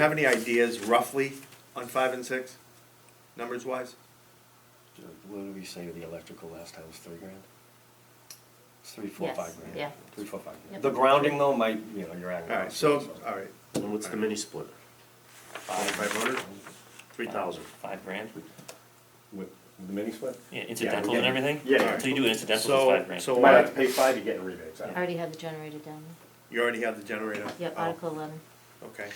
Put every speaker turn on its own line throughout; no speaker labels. Have any ideas roughly on five and six, numbers wise?
What did we say the electrical last time was three grand? It's three, four,
Yes,
five grand.
yeah.
Three, four, five grand.
Yep.
The grounding though might, you know, you're adding.
All right, so, all right,
And what's the mini split?
five hundred?
Three thousand.
Five grand?
With with the mini split?
Yeah,
Yeah,
incidentals
yeah.
and everything?
Yeah.
So you do incidentals, it's
So,
five grand.
so
You might have
uh,
to pay five to get in rebates.
I already had the generator down
you already have the generator?
there. Yep,
Oh,
Article eleven,
Okay,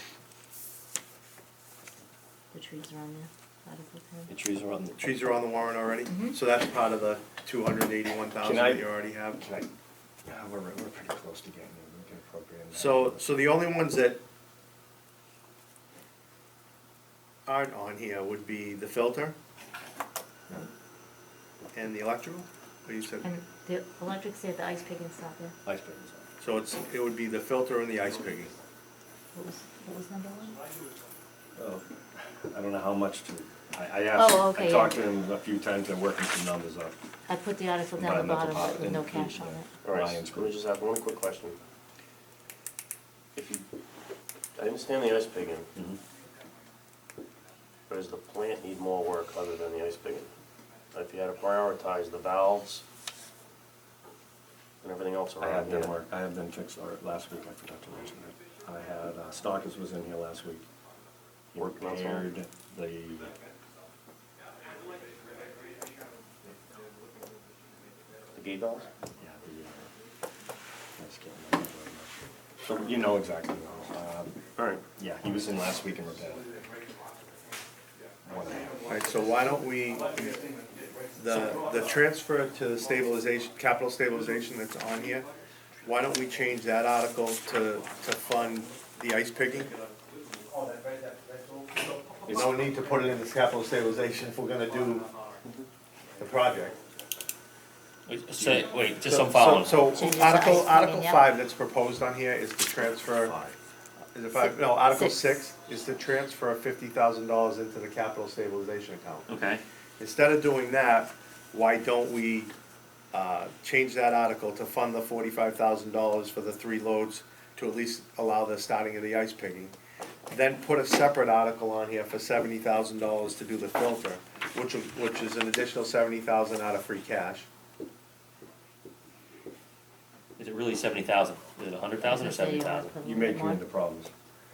the trees are on there, Article
The
ten.
trees are on the.
trees are on the warrant already,
Mhm.
so that's part of the two hundred eighty-one thousand
Can I-
that you already have.
Can I, yeah, we're, we're pretty close to getting it, we can appropriate. that.
So, so the only ones that aren't on here would be the filter and the electrical, what you said?
And the electric's there, the ice picking stopped there.
Ice pick is on.
So it's, it would be the filter and the ice picking.
What was, what was number one?
Oh, I don't know how much to, I, I
Oh,
asked,
okay,
I
yeah.
talked to him a few times, they're working some numbers up.
I put the article down the
Environmental
bottom, but with no
pop- and-
cash on
yeah.
it.
All right,
Lions
so let me
group.
just have one quick question. If you, I understand the ice pigging,
Mhm.
but does the plant need more work other than the ice pigging? If you had to prioritize the valves and everything else
I
around
have them
here.
work, I have them fixed, or last week, I forgot to mention that. I had, uh, Stockers was in here last week. He
Working on some?
repaired the.
The gate valves?
Yeah, the, uh, I just can't remember very much. So you know exactly, what I'm on.
All right,
uh, yeah, he was in last week and repaired. One and a half.
Alright, so why don't we, the, the transfer to the stabilization, capital stabilization that's on here, why don't we change that article to, to fund the ice picking? There's no need to put it in this capital stabilization if we're gonna do the project.
Wait, So, wait, just
So-
some following.
So,
Change
so
it to ice
Article,
picking,
Article
yeah.
five that's proposed on here is to transfer, is it five, no, Article
Six.
six is to transfer fifty thousand dollars into the capital stabilization account.
Okay,
Instead of doing that, why don't we, uh, change that article to fund the forty-five thousand dollars for the three loads to at least allow the starting of the ice picking? Then put a separate article on here for seventy thousand dollars to do the filter, which, which is an additional seventy thousand out of free cash.
is it really seventy thousand? Is it a hundred thousand or
Say
seventy thousand?
Article
You may come
one.
into problems,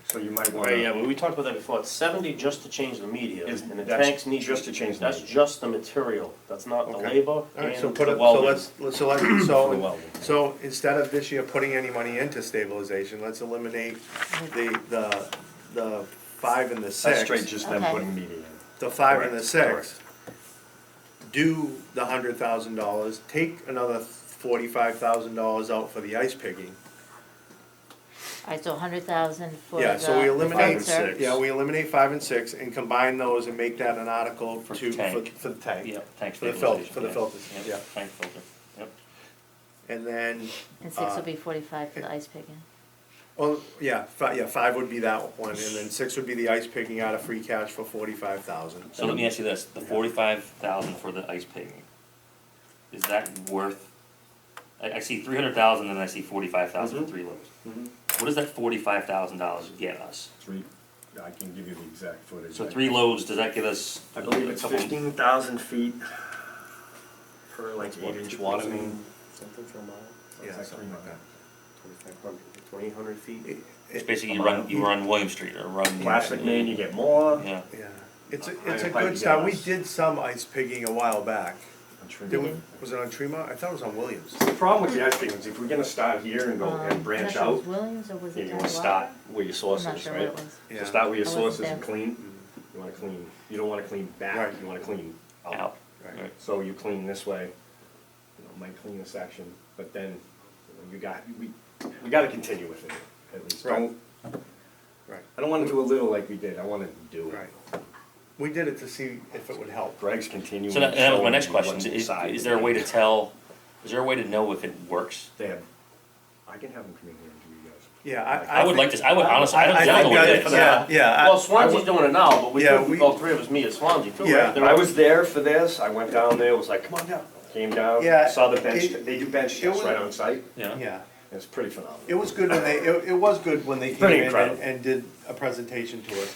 so you might
Right, yeah,
wanna,
but we talked about that before, it's seventy just to change the media,
Is-
and the
that's
tanks need.
just to change the
That's
media.
just the material, that's not the
Okay.
labor and
Alright,
the
so put it, so
welding.
let's, let's- so let,
For the
so,
welding.
so instead of this year putting any money into stabilization, let's eliminate the, the, the five and the
that's straight
six.
just them
Okay.
putting media in.
The five and the
Correct,
six. Do the hundred thousand dollars, take another forty-five thousand dollars out for the ice picking.
Alright, so a hundred thousand for the.
Yeah, so we eliminate,
filter.
six.
yeah, we eliminate five and six and combine those and make that an article
For
to, for,
tank.
for the tank.
Yep, tank
For the filter,
stabilization,
for the
yeah.
filters,
Yep,
yeah.
Tank filter, yep.
And then,
And
uh,
six will be forty-five for the ice picking.
Oh, yeah, five, yeah, five would be that one, and then six would be the ice picking out of free cash for forty-five thousand.
So let me ask you this, the forty-five thousand for the ice paving, is that worth? I, I see three hundred thousand and I see forty-five thousand for three loads. What does that forty-five thousand dollars get us?
Three, I can give you the exact footage.
So three loads, does that get us?
I believe it's
a couple-
fifteen thousand feet per like eight inch water main.
Something for a mile?
Yeah, something like that.
Twenty-five hundred, twenty-eight hundred feet?
It's basically you run, you run William Street or run.
Plastic main, you get more.
Yeah,
Yeah, it's, a-
I
it's a
applied
good
to
start, we
gas.
did some ice picking a while back,
I'm sure
did
you-
we,
Mm-hmm.
was it on Tremont? I thought it was on Williams.
The problem with the ice thing is if we're gonna start here and go and
Um,
branch
I'm not sure it
out,
was Williams or was
yeah,
it
you
down
wanna
the
start
bottom?
where your
I'm
source
not
is,
sure what
right?
it was.
Yeah.
So start where your
I wasn't
source is and
there.
clean, you wanna clean, you don't wanna clean back,
Right.
you wanna clean
out,
out.
Right.
right.
So you clean this way, you know, might clean this section, but then you know, you got, we, we gotta continue with it, at least,
Right.
don't,
Right,
I don't wanna do a little like we did, I wanna do it.
right. We did it to see if it would help.
Greg's continuing.
So that, that was my
showing
next
me
question,
what's
is,
inside.
is there a way to tell, is there a way to know if it works?
They have, I can have them come in here and do you guys.
Yeah, I,
I
I
would
think-
like to, I would honestly, I don't,
I
I don't know
think
what
that-
it is.
Yeah, yeah. I-
Well, Swansea's doing it now, but we,
Yeah,
could-
we-
all three of us meet at Swansea too, right?
Yeah.
There
I was there for this, I went down there, was like, come on down, came down,
Yeah,
saw the bench,
it-
they do bench
it
tests
was-
right on site.
Yeah,
Yeah,
It's pretty phenomenal.
It was good when they, it, it was good when they came
Pretty
in and,
incredible.
and did a presentation to us.